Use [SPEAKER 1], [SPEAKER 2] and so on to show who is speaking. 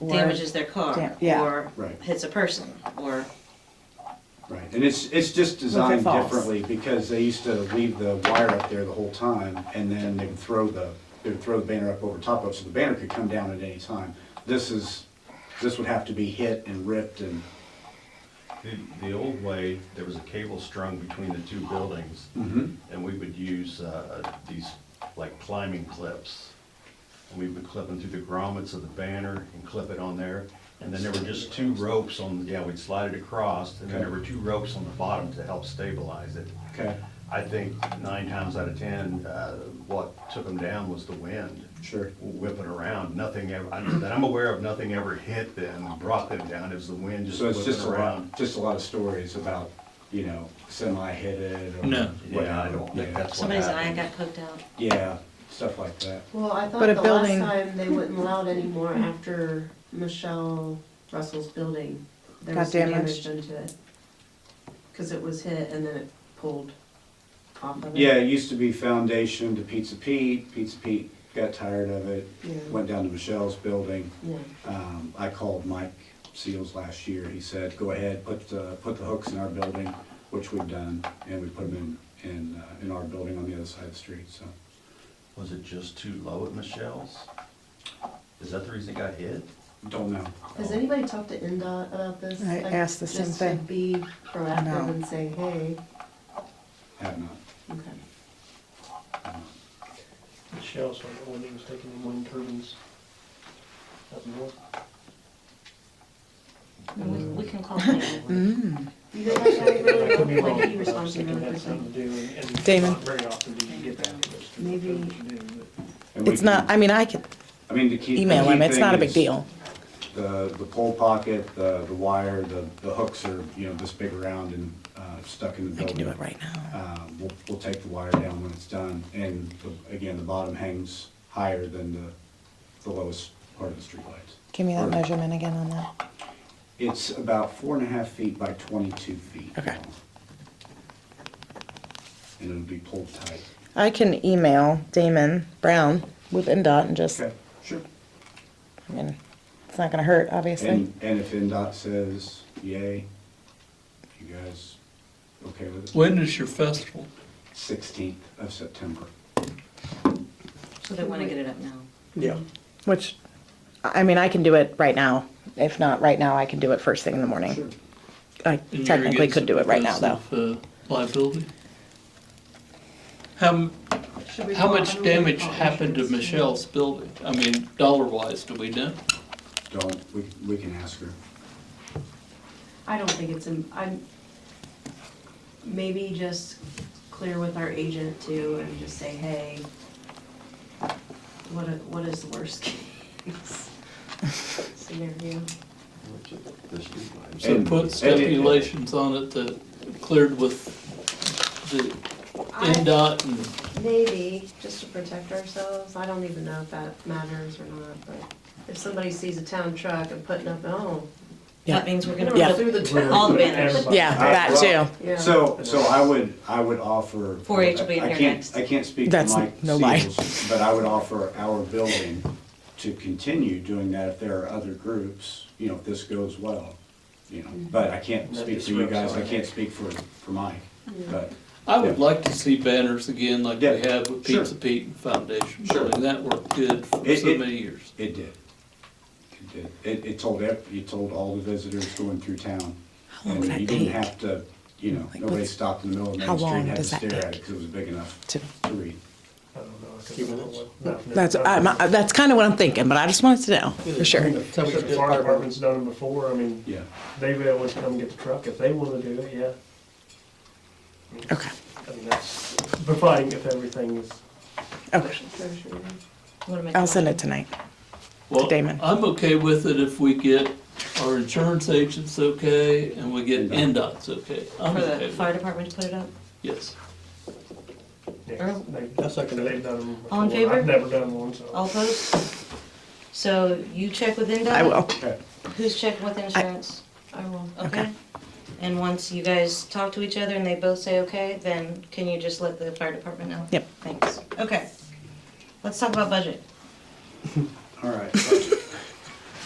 [SPEAKER 1] or-
[SPEAKER 2] damages their car,
[SPEAKER 1] Dam- yeah.
[SPEAKER 2] or
[SPEAKER 3] Right.
[SPEAKER 2] hits a person, or,
[SPEAKER 3] Right, and it's, it's just designed
[SPEAKER 1] falls.
[SPEAKER 3] differently because they used to leave the wire up there the whole time and then they would throw the, they would throw the banner up over top of it, so the banner could come down at any time. This is, this would have to be hit and ripped and,
[SPEAKER 4] The, the old way, there was a cable strung between the two buildings, and we would use uh, these, like climbing clips. And we would clip them through the grommets of the banner and clip it on there. And then there were just two ropes on, yeah, we'd slide it across, and then there were two ropes on the bottom to help stabilize it.
[SPEAKER 3] okay,
[SPEAKER 4] I think nine times out of ten, uh, what took them down was the wind.
[SPEAKER 3] Sure.
[SPEAKER 4] Whipping around, nothing ever, I- that I'm aware of, nothing ever hit them, and brought them down, it was the wind just
[SPEAKER 3] so it's just a
[SPEAKER 4] whipping around.
[SPEAKER 3] lot, just a lot of stories about, you know, semi hit it or.
[SPEAKER 5] No.
[SPEAKER 4] Yeah, I don't think
[SPEAKER 3] Yeah.
[SPEAKER 4] that's what
[SPEAKER 2] somebody's eye
[SPEAKER 4] happened.
[SPEAKER 2] got poked out.
[SPEAKER 3] Yeah, stuff like that.
[SPEAKER 6] Well, I thought
[SPEAKER 1] But a
[SPEAKER 6] the
[SPEAKER 1] building-
[SPEAKER 6] last time they wouldn't allow it anymore after Michelle Russell's building. There
[SPEAKER 1] Got
[SPEAKER 6] was some damage
[SPEAKER 1] damaged.
[SPEAKER 6] done to it. Cause it was hit and then it pulled off of it.
[SPEAKER 3] Yeah, it used to be foundation to Pizza Pete, Pizza Pete got tired of it,
[SPEAKER 6] Yeah.
[SPEAKER 3] went down to Michelle's building.
[SPEAKER 6] Yeah.
[SPEAKER 3] Um, I called Mike Seals last year, he said, go ahead, put the, put the hooks in our building, which we've done, and we put them in, in, uh, in our building on the other side of the street, so.
[SPEAKER 4] Was it just too low at Michelle's? Is that the reason it got hit?
[SPEAKER 3] Don't know.
[SPEAKER 6] Has anybody talked to NDOT about this?
[SPEAKER 1] I
[SPEAKER 6] Like,
[SPEAKER 1] asked the same
[SPEAKER 6] just to
[SPEAKER 1] thing.
[SPEAKER 6] Be proactive
[SPEAKER 1] No.
[SPEAKER 6] and say, hey,
[SPEAKER 3] Have not.
[SPEAKER 6] okay.
[SPEAKER 7] Shell, so I know when he was taking the wind turbines up north.
[SPEAKER 2] We
[SPEAKER 5] Mm.
[SPEAKER 2] we can call them.
[SPEAKER 5] Mm-hmm.
[SPEAKER 1] Mm.
[SPEAKER 6] You guys actually
[SPEAKER 7] I
[SPEAKER 6] really
[SPEAKER 7] could be
[SPEAKER 6] don't
[SPEAKER 7] wrong,
[SPEAKER 6] like any
[SPEAKER 7] but I was thinking it had
[SPEAKER 6] responsibility.
[SPEAKER 7] something to do, and- and
[SPEAKER 1] Damon.
[SPEAKER 7] not very often do you get that. but it's true,
[SPEAKER 6] Maybe-
[SPEAKER 7] that's what you do, but-
[SPEAKER 3] And we
[SPEAKER 5] It's
[SPEAKER 3] can-
[SPEAKER 5] not, I mean, I could
[SPEAKER 3] I mean, the key. the
[SPEAKER 5] email
[SPEAKER 3] key
[SPEAKER 5] him, it's
[SPEAKER 3] thing
[SPEAKER 5] not a
[SPEAKER 3] is
[SPEAKER 5] big deal.
[SPEAKER 3] The, the pole pocket, the, the wire, the, the hooks are, you know, this big around and, uh, stuck in the
[SPEAKER 5] I
[SPEAKER 3] building.
[SPEAKER 5] can do it right now.
[SPEAKER 3] Uh, we'll, we'll take the wire down when it's done, and the- again, the bottom hangs higher than the, the lowest part of the streetlights.
[SPEAKER 5] Give me that
[SPEAKER 3] Or-
[SPEAKER 5] measurement again on that.
[SPEAKER 3] It's about four and a half feet by twenty-two feet.
[SPEAKER 5] Okay.
[SPEAKER 3] long. And it'll be pulled tight.
[SPEAKER 5] I can email Damon Brown with NDOT and just, I
[SPEAKER 3] Okay, sure.
[SPEAKER 5] mean, it's not gonna hurt, obviously.
[SPEAKER 3] And, and if NDOT says yay, you guys okay with it?
[SPEAKER 8] When is your festival?
[SPEAKER 3] Sixteenth of September.
[SPEAKER 2] So they wanna get it up now.
[SPEAKER 7] Yeah.
[SPEAKER 5] Which, I mean, I can do it right now. If not right now, I can do it first thing in the
[SPEAKER 3] Sure.
[SPEAKER 5] morning. I
[SPEAKER 8] And you're
[SPEAKER 5] technically
[SPEAKER 8] against
[SPEAKER 5] could do it right now, though.
[SPEAKER 8] because of, uh, Liability? How, m-
[SPEAKER 6] Should we
[SPEAKER 8] how
[SPEAKER 6] call- I
[SPEAKER 8] much
[SPEAKER 6] don't know if we
[SPEAKER 8] damage
[SPEAKER 6] call
[SPEAKER 8] happened to
[SPEAKER 6] insurance.
[SPEAKER 8] Michelle's building? I mean, dollar wise, do we know?
[SPEAKER 3] Don't, we, we can ask her.
[SPEAKER 6] I don't think it's, in- I'm, maybe just clear with our agent too and just say, hey, what, i- what is the worst case scenario?
[SPEAKER 8] So
[SPEAKER 3] And-
[SPEAKER 8] put
[SPEAKER 3] and-
[SPEAKER 8] stipulations on it that cleared with the
[SPEAKER 6] I-
[SPEAKER 8] NDOT and, uh,
[SPEAKER 6] Maybe, just to protect ourselves, I don't even know if that matters or not, but if somebody sees a town truck and putting up, oh,
[SPEAKER 5] Yeah.
[SPEAKER 2] That means we're
[SPEAKER 6] we're
[SPEAKER 2] gonna
[SPEAKER 6] gonna
[SPEAKER 2] put
[SPEAKER 6] through the
[SPEAKER 7] We're-
[SPEAKER 6] town.
[SPEAKER 2] All the banners.
[SPEAKER 7] everybody-
[SPEAKER 5] Yeah, that
[SPEAKER 3] well-
[SPEAKER 5] too.
[SPEAKER 6] Yeah.
[SPEAKER 3] So, so I would, I would offer.
[SPEAKER 2] 4-H will be in
[SPEAKER 3] I
[SPEAKER 2] here
[SPEAKER 3] can't-
[SPEAKER 2] next.
[SPEAKER 3] I can't speak to
[SPEAKER 5] That's
[SPEAKER 3] Mike
[SPEAKER 5] no lie.
[SPEAKER 3] Seals, but I would offer our building to continue doing that if there are other groups, you know, if this goes well, you know.
[SPEAKER 2] Mm-hmm.
[SPEAKER 3] But I can't
[SPEAKER 7] Let
[SPEAKER 3] speak
[SPEAKER 7] this
[SPEAKER 3] for you
[SPEAKER 7] rip
[SPEAKER 3] guys, I
[SPEAKER 7] something.
[SPEAKER 3] can't speak for, for Mike,
[SPEAKER 2] Mm-hmm.
[SPEAKER 3] but,
[SPEAKER 8] I would
[SPEAKER 3] Yeah.
[SPEAKER 8] like to see banners again like we
[SPEAKER 3] Yeah,
[SPEAKER 8] have with
[SPEAKER 3] sure.
[SPEAKER 8] Pizza Pete and Foundation
[SPEAKER 3] Sure.
[SPEAKER 8] Building. That worked good for
[SPEAKER 3] It-
[SPEAKER 8] so
[SPEAKER 3] it-
[SPEAKER 8] many years.
[SPEAKER 3] It did. It did. It, it told, ev- it told all the visitors going through town.
[SPEAKER 5] How long
[SPEAKER 3] And
[SPEAKER 5] would that
[SPEAKER 3] you didn't
[SPEAKER 5] take?
[SPEAKER 3] have to, you know,
[SPEAKER 5] Like,
[SPEAKER 3] nobody
[SPEAKER 5] what's-
[SPEAKER 3] stopped in the middle of
[SPEAKER 5] how
[SPEAKER 3] Main Street
[SPEAKER 5] long
[SPEAKER 3] and had to
[SPEAKER 5] does that
[SPEAKER 3] stare at it
[SPEAKER 5] take?
[SPEAKER 3] because it was big enough
[SPEAKER 5] To-
[SPEAKER 3] to read.
[SPEAKER 7] I don't know. I couldn't remember what- not from
[SPEAKER 5] That's,
[SPEAKER 7] the-
[SPEAKER 5] I'm, I- that's kinda what I'm thinking, but I just wanted to know, for
[SPEAKER 7] I
[SPEAKER 5] sure.
[SPEAKER 7] mean, The Texas Fire Department's done them before, I mean,
[SPEAKER 3] Yeah.
[SPEAKER 7] they would always come get the truck if they wanna do it, yeah.
[SPEAKER 5] Okay,
[SPEAKER 7] I mean, that's providing if everything is
[SPEAKER 5] okay.
[SPEAKER 2] Wanna make a
[SPEAKER 5] I'll send
[SPEAKER 2] motion?
[SPEAKER 5] it tonight.
[SPEAKER 8] Well,
[SPEAKER 5] Damon.
[SPEAKER 8] I'm okay with it if we get our insurance agents okay and we get
[SPEAKER 3] NDOT.
[SPEAKER 8] NDOT's okay. I'm
[SPEAKER 2] For
[SPEAKER 8] okay
[SPEAKER 2] the
[SPEAKER 8] with
[SPEAKER 2] fire
[SPEAKER 8] it,
[SPEAKER 2] department to put it up?
[SPEAKER 8] yes.
[SPEAKER 7] Yeah,
[SPEAKER 2] Earl?
[SPEAKER 7] they- That's like, they've done them before.
[SPEAKER 2] All in favor?
[SPEAKER 7] I've never done one, so.
[SPEAKER 2] All opposed? So you check with NDOT?
[SPEAKER 5] I will.
[SPEAKER 3] Okay.
[SPEAKER 2] Who's checking with insurance?
[SPEAKER 6] I will.
[SPEAKER 2] Okay. And once you guys talk to each other and they both say okay, then can you just let the fire department know?
[SPEAKER 5] Yep.
[SPEAKER 2] Thanks. Okay. Let's talk about budget.
[SPEAKER 3] All right.